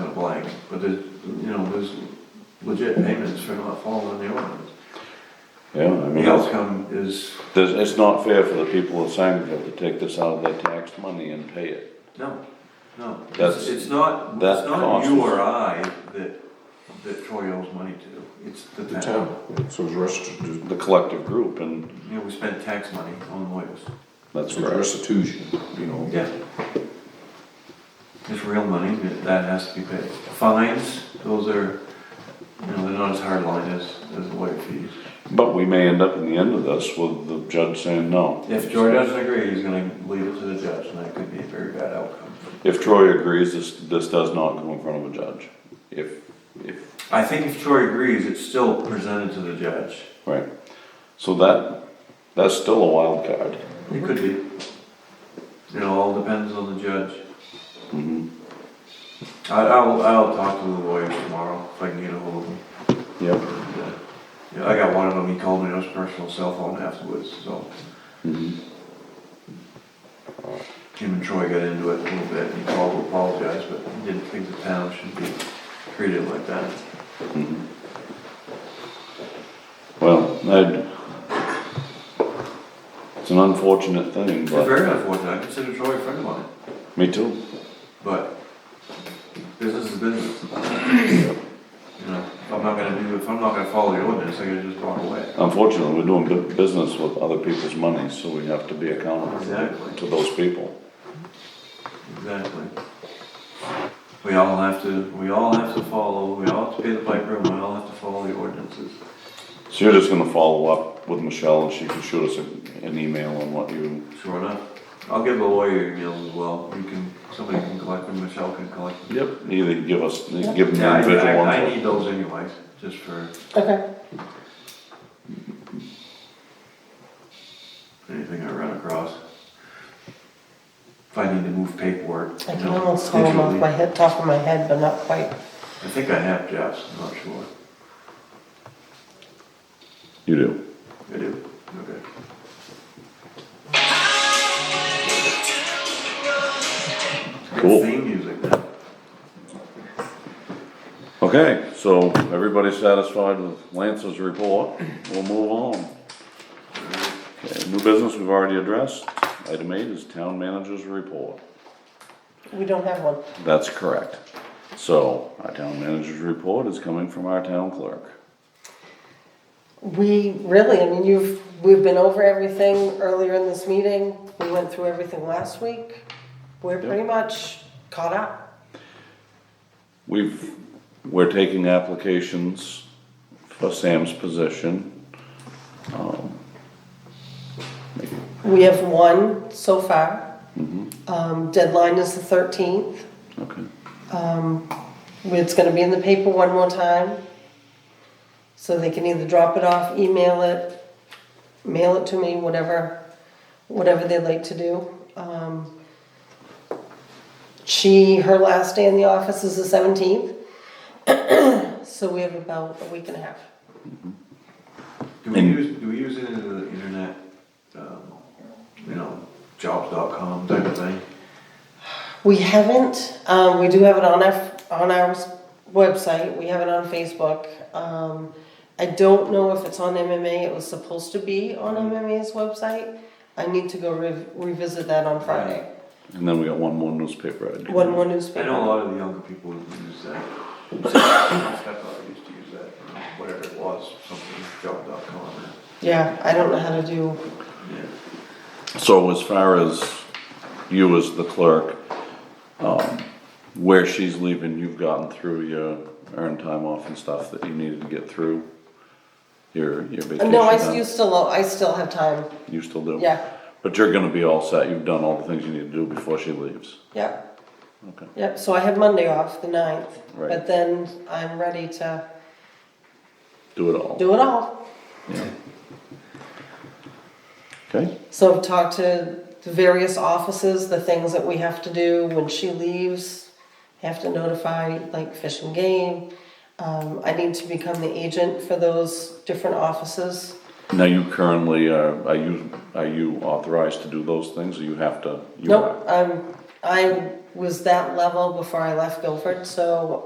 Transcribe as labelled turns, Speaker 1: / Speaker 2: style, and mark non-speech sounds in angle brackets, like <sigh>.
Speaker 1: But there's, you know, there's legit payments for not following the ordinance.
Speaker 2: Yeah, I mean,
Speaker 1: The
Speaker 2: it's,
Speaker 1: outcome is,
Speaker 2: there's- it's not fair for the people of Sangerville to take this out of their tax money and pay it.
Speaker 1: no, no. It's-
Speaker 2: That's-
Speaker 1: It's not, it's
Speaker 2: that
Speaker 1: not
Speaker 2: cost
Speaker 1: you
Speaker 2: is-
Speaker 1: or I that, that Troy owes money to, it's the
Speaker 3: The
Speaker 1: town.
Speaker 3: town, so it's restitution,
Speaker 2: The collective group, and
Speaker 1: You know, we spent tax money on lawyers.
Speaker 2: that's
Speaker 3: it's
Speaker 2: correct.
Speaker 3: restitution, you know.
Speaker 1: Yeah. It's real money, that that has to be paid. Fines, those are, you know, they're not as hard line as, as lawyer fees.
Speaker 2: But we may end up in the end of this with the judge saying no.
Speaker 1: If Troy doesn't agree, he's gonna leave it to the judge, and that could be a very bad outcome.
Speaker 2: If Troy agrees, this, this does not go in front of a judge. If, if,
Speaker 1: I think if Troy agrees, it's still presented to the judge.
Speaker 2: right. So that, that's still a wild card.
Speaker 1: It could be. It all depends on the judge.
Speaker 2: Mhm.
Speaker 1: I, I'll, I'll talk to the lawyer tomorrow, if I can get a hold of him.
Speaker 2: Yep.
Speaker 1: Yeah. Yeah, I got one of them, he called me on his personal cell phone afterwards, so.
Speaker 2: Mhm.
Speaker 1: Jim and Troy got into it a little bit, and he called to apologize, but he didn't think the town should be treated like that.
Speaker 2: Mhm. Well, I'd, it's an unfortunate thing,
Speaker 1: It's
Speaker 2: but,
Speaker 1: very unfortunate, I consider Troy a friend of mine,
Speaker 2: me too.
Speaker 1: but business is business. <clears throat> You know, if I'm not gonna do, if I'm not gonna follow the ordinance, I gotta just walk away.
Speaker 2: Unfortunately, we're doing bu- business with other people's money, so we have to be accountable
Speaker 1: Exactly.
Speaker 2: to those people.
Speaker 1: Exactly. We all have to, we all have to follow, we all have to pay the piper, and we all have to follow the ordinances.
Speaker 2: So you're just gonna follow up with Michelle, and she can shoot us a- an email on what you,
Speaker 1: Sure enough. I'll give the lawyer emails as well. You can, somebody can collect them, Michelle can collect them.
Speaker 2: yep, either give us, give
Speaker 1: Yeah,
Speaker 2: them the
Speaker 1: I,
Speaker 2: individual
Speaker 1: I, I
Speaker 2: ones.
Speaker 1: need those anyways, just for
Speaker 4: Okay.
Speaker 1: anything I run across. If I need to move paperwork,
Speaker 4: I
Speaker 1: you
Speaker 4: can
Speaker 1: know,
Speaker 4: almost call them off
Speaker 1: digitally.
Speaker 4: my head, top of my head, but not quite.
Speaker 1: I think I have Jeff's, I'm not sure.
Speaker 2: You do.
Speaker 1: I do, okay.
Speaker 2: Cool.
Speaker 1: Theme music now.
Speaker 2: Okay, so everybody's satisfied with Lance's report, we'll move on. Okay, New business we've already addressed, item eight is town manager's report.
Speaker 4: We don't have one.
Speaker 2: That's correct. So, our town manager's report is coming from our town clerk.
Speaker 4: We really, I mean, you've, we've been over everything earlier in this meeting. We went through everything last week. We're pretty much caught up.
Speaker 2: We've, we're taking applications for Sam's position.
Speaker 4: We have one so far. Um, deadline is the thirteenth.
Speaker 2: Okay.
Speaker 4: It's gonna be in the paper one more time. So they can either drop it off, email it, mail it to me, whatever, whatever they'd like to do. Um, She, her last day in the office is the seventeenth. <clears throat> So we have about a week and a half.
Speaker 1: Do we
Speaker 2: And-
Speaker 1: use, do we use any of the internet, um, you know, jobs.com type of thing?
Speaker 4: We haven't, um, we do have it on our, on our s- website, we have it on Facebook. Um, I don't know if it's on MMA, it was supposed to be on MMA's website. I need to go rev- revisit that on Friday.
Speaker 2: And then we got one more newspaper ad.
Speaker 4: One more
Speaker 1: I know a
Speaker 4: newspaper.
Speaker 1: lot of the younger people use that. <coughs> My Stepfather used to use that, you know, whatever it was, something, job.com.
Speaker 4: Yeah, I don't know how to do,
Speaker 1: Yeah.
Speaker 2: So as far as you as the clerk, um, where she's leaving, you've gotten through your earned time off and stuff that you needed to get through? Your, your vacation
Speaker 4: Uh, no, I s-
Speaker 2: time?
Speaker 4: you still, I still have time,
Speaker 2: You still do?
Speaker 4: yeah,
Speaker 2: But you're gonna be all set, you've done all the things you need to do before she leaves.
Speaker 4: yeah.
Speaker 2: Okay.
Speaker 4: Yep, so I have Monday off, the ninth,
Speaker 2: Right.
Speaker 4: but then I'm ready to
Speaker 2: Do it all.
Speaker 4: do it all.
Speaker 2: Okay?
Speaker 4: So I've talked to the various offices, the things that we have to do when she leaves. Have to notify like Fish and Game. Um, I need to become the agent for those different offices.
Speaker 2: Now you currently, are, are you, are you authorized to do those things, or you have to? you
Speaker 4: Nope,
Speaker 2: are?
Speaker 4: I'm, I was that level before I left Guilford, so